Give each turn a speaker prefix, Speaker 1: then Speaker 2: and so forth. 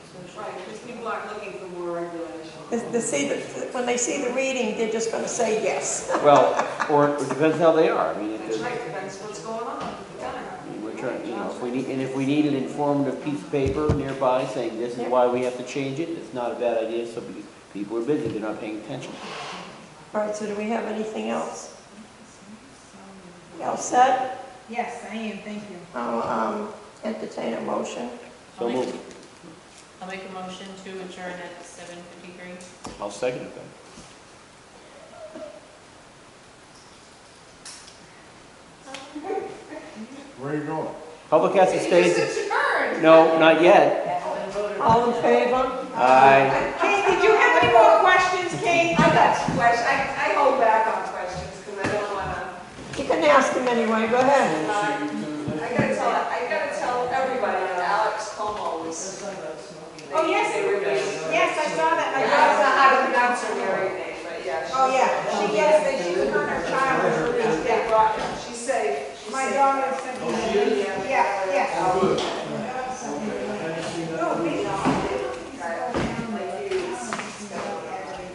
Speaker 1: Right, because people aren't looking for more regulation.
Speaker 2: They they see, the when they see the reading, they're just going to say yes.
Speaker 3: Well, or it depends how they are. I mean, if
Speaker 1: That's
Speaker 3: there's-
Speaker 1: right, that's what's going on at the time.
Speaker 3: we're trying, you know, if we need, and if we need an informative piece of paper nearby saying this is why we have to change it, it's not a bad idea, so be- people are busy, they're not paying attention.
Speaker 2: All right, so do we have anything else? All set?
Speaker 4: Yes, I am, thank you.
Speaker 2: I'll um, entertain a motion.
Speaker 3: So
Speaker 5: I'll make-
Speaker 3: move.
Speaker 5: I'll make a motion to adjourn at seven fifty-three.
Speaker 3: I'll second it then.
Speaker 6: Where are you going?
Speaker 3: Public has to stay,
Speaker 4: adjourned.
Speaker 3: no, not yet.
Speaker 2: All in favor?
Speaker 3: Aye.
Speaker 4: Kate, did you have any more questions, Kate?
Speaker 1: I got some questions, I, I hold back on questions because I don't want to,
Speaker 2: You can ask him anyway, go ahead.
Speaker 1: I gotta tell, I gotta tell everybody that Alex Como was.
Speaker 4: Oh, yes.
Speaker 1: They were being,
Speaker 4: Yes, I saw that,
Speaker 1: I
Speaker 4: I saw
Speaker 1: don't know
Speaker 4: that.
Speaker 1: how to pronounce her married name, but yeah. she-
Speaker 4: Oh, yeah, she gets that she was on her child was released,
Speaker 1: They
Speaker 4: yeah.
Speaker 1: brought, she said, she
Speaker 4: My
Speaker 1: said-
Speaker 4: daughter sent me, that. yeah, yeah.
Speaker 6: Good.
Speaker 4: Yeah,